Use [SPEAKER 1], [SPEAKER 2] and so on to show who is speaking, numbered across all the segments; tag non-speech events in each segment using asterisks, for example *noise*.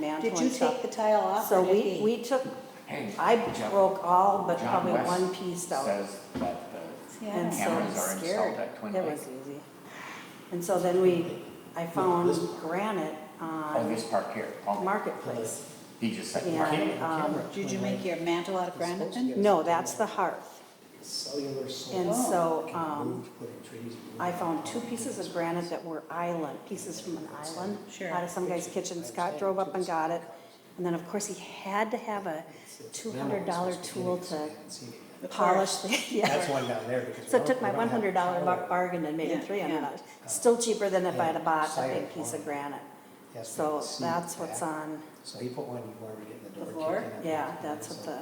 [SPEAKER 1] Did you
[SPEAKER 2] joints up.
[SPEAKER 1] take the tile off
[SPEAKER 2] So
[SPEAKER 1] or did
[SPEAKER 2] we,
[SPEAKER 1] he?
[SPEAKER 2] we took,
[SPEAKER 3] Hey,
[SPEAKER 2] I
[SPEAKER 3] Jeff-
[SPEAKER 2] broke all but
[SPEAKER 3] John
[SPEAKER 2] probably
[SPEAKER 3] West
[SPEAKER 2] one piece out.
[SPEAKER 3] Says that the
[SPEAKER 1] Yeah, I
[SPEAKER 2] And
[SPEAKER 1] don't
[SPEAKER 2] so
[SPEAKER 1] know.
[SPEAKER 3] cameras are installed
[SPEAKER 2] scared.
[SPEAKER 3] at Twin
[SPEAKER 2] It
[SPEAKER 3] Lake.
[SPEAKER 2] was easy. And so then we, I found granite
[SPEAKER 3] Oh,
[SPEAKER 2] on
[SPEAKER 3] this part here, oh,
[SPEAKER 2] Marketplace.
[SPEAKER 3] he just said,
[SPEAKER 2] And,
[SPEAKER 3] market.
[SPEAKER 2] um,
[SPEAKER 1] Did you make your mantle out of granite then?
[SPEAKER 2] No, that's the hearth.
[SPEAKER 4] Cellular solar.
[SPEAKER 2] And
[SPEAKER 3] Oh,
[SPEAKER 2] so,
[SPEAKER 4] Can
[SPEAKER 2] um,
[SPEAKER 4] move, putting trees in.
[SPEAKER 2] I found two pieces of granite that were island, pieces from an island.
[SPEAKER 1] Sure.
[SPEAKER 2] Out of some guy's kitchen. Scott drove up and got it. And then, of course, he had to have a
[SPEAKER 4] It's- it's
[SPEAKER 2] two
[SPEAKER 4] minimal,
[SPEAKER 2] hundred
[SPEAKER 4] it's
[SPEAKER 2] dollar
[SPEAKER 4] supposed to be
[SPEAKER 2] tool
[SPEAKER 4] big, so
[SPEAKER 2] to
[SPEAKER 4] you can't see it.
[SPEAKER 1] The
[SPEAKER 2] polish
[SPEAKER 1] parts.
[SPEAKER 2] the, *laughs*
[SPEAKER 4] That's
[SPEAKER 2] yeah.
[SPEAKER 4] why I'm down there. because we
[SPEAKER 2] So it
[SPEAKER 4] don't-
[SPEAKER 2] took
[SPEAKER 4] we
[SPEAKER 2] my
[SPEAKER 4] don't
[SPEAKER 2] one
[SPEAKER 4] have
[SPEAKER 2] hundred dollar
[SPEAKER 4] power.
[SPEAKER 2] bargain and made
[SPEAKER 1] Yeah,
[SPEAKER 2] it three hundred
[SPEAKER 1] yeah.
[SPEAKER 2] dollars. Still cheaper than if I'd have bought a
[SPEAKER 4] Side
[SPEAKER 2] big piece of
[SPEAKER 4] one.
[SPEAKER 2] granite.
[SPEAKER 4] It has to
[SPEAKER 2] So
[SPEAKER 4] exceed
[SPEAKER 2] that's what's
[SPEAKER 4] that.
[SPEAKER 2] on,
[SPEAKER 4] So he put one, where we get the
[SPEAKER 1] The
[SPEAKER 4] door kicked in.
[SPEAKER 1] floor?
[SPEAKER 4] and
[SPEAKER 2] yeah,
[SPEAKER 4] everything,
[SPEAKER 2] that's
[SPEAKER 4] so
[SPEAKER 2] what the,
[SPEAKER 4] on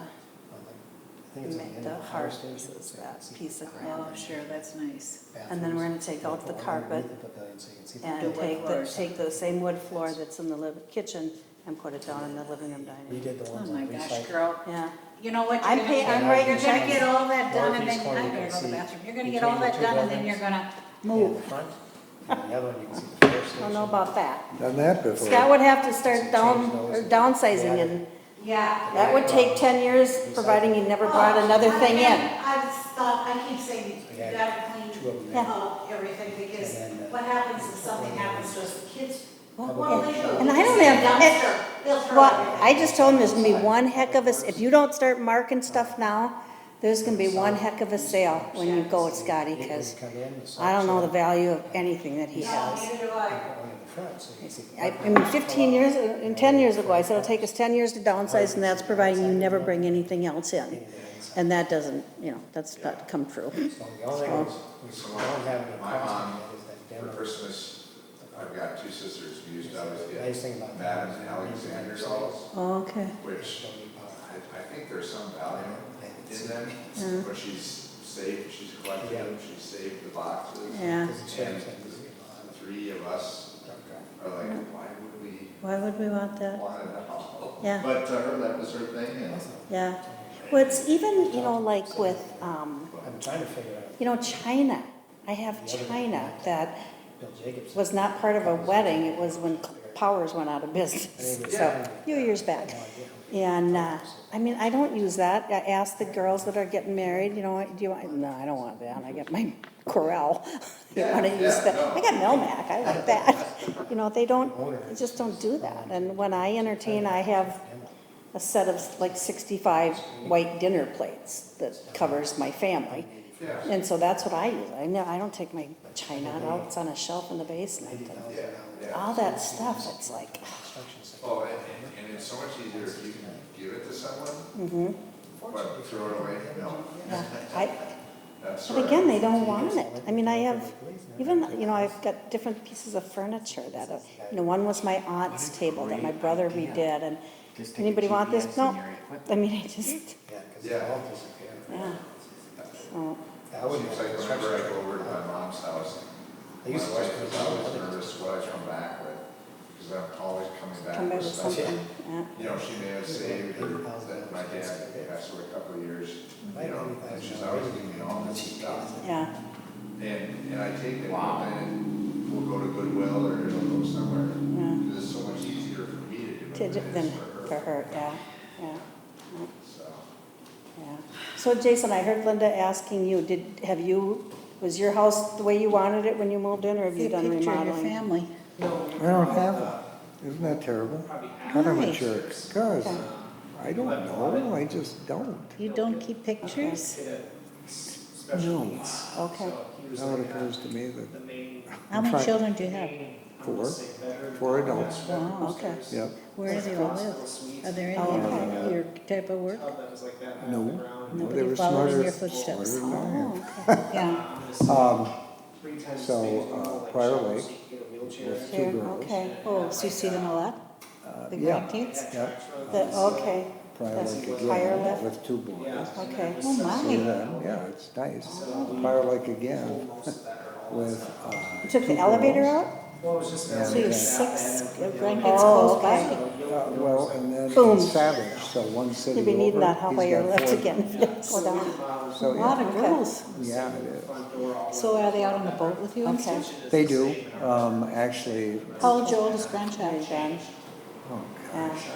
[SPEAKER 4] the- I think it's on
[SPEAKER 2] ma-
[SPEAKER 4] end
[SPEAKER 2] the
[SPEAKER 4] of power
[SPEAKER 2] hard
[SPEAKER 4] station,
[SPEAKER 2] piece is,
[SPEAKER 4] so you can
[SPEAKER 2] that
[SPEAKER 4] see
[SPEAKER 2] piece of
[SPEAKER 4] the
[SPEAKER 2] granite.
[SPEAKER 1] Oh, sure, that's nice.
[SPEAKER 2] And then we're gonna
[SPEAKER 4] bathrooms.
[SPEAKER 2] take
[SPEAKER 4] We'll
[SPEAKER 2] out the
[SPEAKER 4] put one underneath
[SPEAKER 2] carpet
[SPEAKER 4] the pavilion so you can see the
[SPEAKER 2] And
[SPEAKER 4] carpet.
[SPEAKER 2] take the,
[SPEAKER 1] floors.
[SPEAKER 2] take the same wood floor that's in the liv- kitchen and put it down in the living room
[SPEAKER 4] We
[SPEAKER 2] dining.
[SPEAKER 4] did the
[SPEAKER 1] Oh
[SPEAKER 4] ones
[SPEAKER 1] my
[SPEAKER 4] on
[SPEAKER 1] gosh,
[SPEAKER 4] recycle.
[SPEAKER 1] girl.
[SPEAKER 2] Yeah,
[SPEAKER 1] You know what?
[SPEAKER 2] I'm
[SPEAKER 1] you're
[SPEAKER 2] pay-
[SPEAKER 1] gonna
[SPEAKER 2] I'm
[SPEAKER 1] do?
[SPEAKER 2] writing
[SPEAKER 1] You're gonna
[SPEAKER 2] checks.
[SPEAKER 1] get all that done and then,
[SPEAKER 4] Northeast corner,
[SPEAKER 1] I'm gonna go
[SPEAKER 4] you can
[SPEAKER 1] to the
[SPEAKER 4] see
[SPEAKER 1] bathroom. You're gonna
[SPEAKER 4] between
[SPEAKER 1] get all
[SPEAKER 4] the
[SPEAKER 1] that
[SPEAKER 4] two
[SPEAKER 1] done and then
[SPEAKER 4] buildings.
[SPEAKER 1] you're gonna
[SPEAKER 4] And the
[SPEAKER 1] move.
[SPEAKER 2] *laughs*
[SPEAKER 4] front, and the other one, you can see the fire station.
[SPEAKER 2] don't know about that.
[SPEAKER 5] Done that before.
[SPEAKER 2] Scott would have to start
[SPEAKER 4] Change
[SPEAKER 2] down,
[SPEAKER 4] those
[SPEAKER 2] or
[SPEAKER 4] and-
[SPEAKER 2] downsizing
[SPEAKER 4] Yeah.
[SPEAKER 2] and
[SPEAKER 1] Yeah. Oh,
[SPEAKER 2] that would take ten years, providing he never brought another thing in.
[SPEAKER 1] I just thought, I keep saying, you
[SPEAKER 4] Yeah.
[SPEAKER 1] gotta
[SPEAKER 4] Two of them
[SPEAKER 1] clean
[SPEAKER 4] there.
[SPEAKER 1] up everything because
[SPEAKER 4] And then, uh,
[SPEAKER 1] what happens if something happens to us, the kids,
[SPEAKER 4] Well,
[SPEAKER 1] well, they do.
[SPEAKER 2] Oh, and I don't have-
[SPEAKER 1] Dumpster, They'll throw
[SPEAKER 2] Well,
[SPEAKER 1] everything.
[SPEAKER 2] I just told him there's gonna be one heck of a, if you don't start marking stuff now, there's gonna be one heck of a sale when you go, Scotty,
[SPEAKER 4] When you
[SPEAKER 2] cause
[SPEAKER 4] come in, the
[SPEAKER 2] I don't know the
[SPEAKER 4] side-
[SPEAKER 2] value of anything that he
[SPEAKER 1] No,
[SPEAKER 2] has.
[SPEAKER 1] neither do I.
[SPEAKER 4] Put one in the front so you can see the
[SPEAKER 2] I, I
[SPEAKER 4] carpet.
[SPEAKER 2] mean, fifteen years, uh, and ten years ago, I said it'll take us ten years to downsize, and that's providing you never bring anything else in. And that doesn't, you know, that's not come true.
[SPEAKER 4] So the only thing is, we don't have any
[SPEAKER 6] My mom,
[SPEAKER 4] cost is that
[SPEAKER 6] For
[SPEAKER 4] demo.
[SPEAKER 6] Christmas, I've got two sisters who used to always
[SPEAKER 4] Nice thing
[SPEAKER 6] get
[SPEAKER 4] about
[SPEAKER 6] Madam
[SPEAKER 4] that.
[SPEAKER 6] and Alexander dolls,
[SPEAKER 2] Okay.
[SPEAKER 6] which
[SPEAKER 4] Don't need power.
[SPEAKER 6] I, I think there's some value in them.
[SPEAKER 2] Mm-hmm.
[SPEAKER 6] But she's saved, she's collected them, she's saved the boxes.
[SPEAKER 2] Yeah,
[SPEAKER 4] Because it's very expensive, you
[SPEAKER 6] The
[SPEAKER 4] know,
[SPEAKER 6] three of us
[SPEAKER 4] I'm a truck
[SPEAKER 6] are like, why would we
[SPEAKER 2] why would we want that?
[SPEAKER 6] want it all?
[SPEAKER 2] Yeah.
[SPEAKER 6] But to her, that was her thing and.
[SPEAKER 2] Yeah. Well, it's even, you know, like with, um,
[SPEAKER 4] driver. I'm trying to figure out,
[SPEAKER 2] you know, China. I have China that
[SPEAKER 4] Bill Jacobs.
[SPEAKER 2] was not part of a wedding, it was when Powers went out of business, so, a few years back. And, uh, I mean, I don't use that, I ask the girls that are getting married, you know, do you want, no, I don't want that, I got my Corel. *laughs* You wanna use that, I got Melmac, I like that, you know, they don't, they just don't do that, and when I entertain, I have a set of like sixty-five white dinner plates that covers my family. And so that's what I use, I know, I don't take my china out, it's on a shelf in the basement, and
[SPEAKER 4] $90,000
[SPEAKER 2] all that stuff, it's like,
[SPEAKER 4] construction site.
[SPEAKER 6] Oh, and, and- and it's so much easier if you can give it to someone. But throw it away, no.
[SPEAKER 2] yeah, I,
[SPEAKER 6] That's
[SPEAKER 2] but
[SPEAKER 6] where-
[SPEAKER 2] again, they don't want it, I mean, I have, even, you know, I've got different pieces of furniture that, uh, you know, one was my aunt's table that my brother redid, and
[SPEAKER 3] Just take a
[SPEAKER 2] anybody want this?
[SPEAKER 3] GPS
[SPEAKER 2] No,
[SPEAKER 3] and your equipment.
[SPEAKER 2] I mean, I just,
[SPEAKER 4] Yeah, because
[SPEAKER 6] Yeah.
[SPEAKER 4] the office is there.
[SPEAKER 2] yeah, so,
[SPEAKER 4] That would be
[SPEAKER 6] Seems like
[SPEAKER 4] construction.
[SPEAKER 6] whenever I go over to my mom's house,
[SPEAKER 4] They
[SPEAKER 6] my
[SPEAKER 4] used to
[SPEAKER 6] wife
[SPEAKER 4] just
[SPEAKER 6] is
[SPEAKER 4] put it
[SPEAKER 6] always
[SPEAKER 4] on the-
[SPEAKER 6] nervous what I come back with, because I'm always coming
[SPEAKER 2] come
[SPEAKER 6] back
[SPEAKER 2] back
[SPEAKER 6] with
[SPEAKER 2] with
[SPEAKER 6] stuff. that,
[SPEAKER 2] something, yeah.
[SPEAKER 6] You know, she may have saved or that my dad passed away a couple of years, you know, and she's always giving me all this stuff.
[SPEAKER 2] Yeah,
[SPEAKER 6] And, and I take it,
[SPEAKER 3] Wow.
[SPEAKER 6] and we'll go to Goodwill or it'll go somewhere.
[SPEAKER 2] Yeah.
[SPEAKER 6] Because it's so much easier for me to do
[SPEAKER 2] to,
[SPEAKER 6] it
[SPEAKER 2] ju-
[SPEAKER 6] than it
[SPEAKER 2] then,
[SPEAKER 6] is for
[SPEAKER 2] for her,
[SPEAKER 6] her.
[SPEAKER 2] yeah, yeah,
[SPEAKER 6] So,
[SPEAKER 2] yeah. So Jason, I heard Linda asking you, did, have you, was your house the way you wanted it when you moved in, or have you done
[SPEAKER 1] picture of your
[SPEAKER 2] remodeling?
[SPEAKER 1] family.
[SPEAKER 5] I don't have it. Isn't that terrible? None of
[SPEAKER 1] Nice.
[SPEAKER 5] it's yours. Cause I don't know, I just don't.
[SPEAKER 1] You don't keep pictures?
[SPEAKER 5] No.
[SPEAKER 2] Okay,
[SPEAKER 5] Now it occurs to me that,
[SPEAKER 1] How many
[SPEAKER 5] Try-
[SPEAKER 1] children do you have?
[SPEAKER 5] Four. four adults,
[SPEAKER 1] Wow,
[SPEAKER 2] okay.
[SPEAKER 5] yep.
[SPEAKER 1] Where do they all live? Are there any
[SPEAKER 5] Oh,
[SPEAKER 1] of your type of work?
[SPEAKER 5] No, no, they
[SPEAKER 1] Nobody
[SPEAKER 5] were
[SPEAKER 1] followed in
[SPEAKER 5] smarter.
[SPEAKER 1] your footsteps.
[SPEAKER 5] smarter than I am.
[SPEAKER 2] Oh, okay,
[SPEAKER 5] *laughs*
[SPEAKER 1] Yeah,
[SPEAKER 5] Um, so,
[SPEAKER 7] So,
[SPEAKER 5] uh,
[SPEAKER 7] Prior
[SPEAKER 5] Prior
[SPEAKER 7] Lake.
[SPEAKER 5] Lake,
[SPEAKER 2] Sure,
[SPEAKER 5] girls.
[SPEAKER 2] okay.
[SPEAKER 1] oh, so you see them a lot,
[SPEAKER 5] uh,
[SPEAKER 1] the
[SPEAKER 5] yeah,
[SPEAKER 1] grandkids?
[SPEAKER 5] yep,
[SPEAKER 2] The- okay,
[SPEAKER 5] prior
[SPEAKER 2] That's
[SPEAKER 5] lake
[SPEAKER 2] prior
[SPEAKER 5] again,
[SPEAKER 2] lift?
[SPEAKER 5] with two boys.
[SPEAKER 2] okay.
[SPEAKER 7] Oh,
[SPEAKER 5] So
[SPEAKER 1] my.
[SPEAKER 5] then, yeah, it's nice. Prior lake again, with, uh.
[SPEAKER 2] You took
[SPEAKER 5] two
[SPEAKER 2] the elevator
[SPEAKER 5] girls.
[SPEAKER 2] out?
[SPEAKER 7] So
[SPEAKER 5] So
[SPEAKER 7] you're
[SPEAKER 5] you're
[SPEAKER 7] six
[SPEAKER 1] grandkids
[SPEAKER 2] Oh,
[SPEAKER 1] close
[SPEAKER 2] okay.
[SPEAKER 1] by.
[SPEAKER 5] Uh, Well, and then
[SPEAKER 2] Boom.
[SPEAKER 5] in Savage, so one city
[SPEAKER 2] You'll be needing
[SPEAKER 5] over,
[SPEAKER 2] that halfway
[SPEAKER 5] he's
[SPEAKER 2] your
[SPEAKER 5] got
[SPEAKER 2] lift
[SPEAKER 5] four
[SPEAKER 2] again, if you
[SPEAKER 1] *laughs*
[SPEAKER 2] go down.
[SPEAKER 5] So,
[SPEAKER 1] A lot
[SPEAKER 5] yeah,
[SPEAKER 1] of girls.
[SPEAKER 5] yeah, it is.
[SPEAKER 1] So are they out on the boat with you and
[SPEAKER 2] Okay.
[SPEAKER 1] stuff?
[SPEAKER 5] They do, um, actually,
[SPEAKER 1] How old's your oldest grandchild, Jen?
[SPEAKER 5] oh,
[SPEAKER 2] Yeah.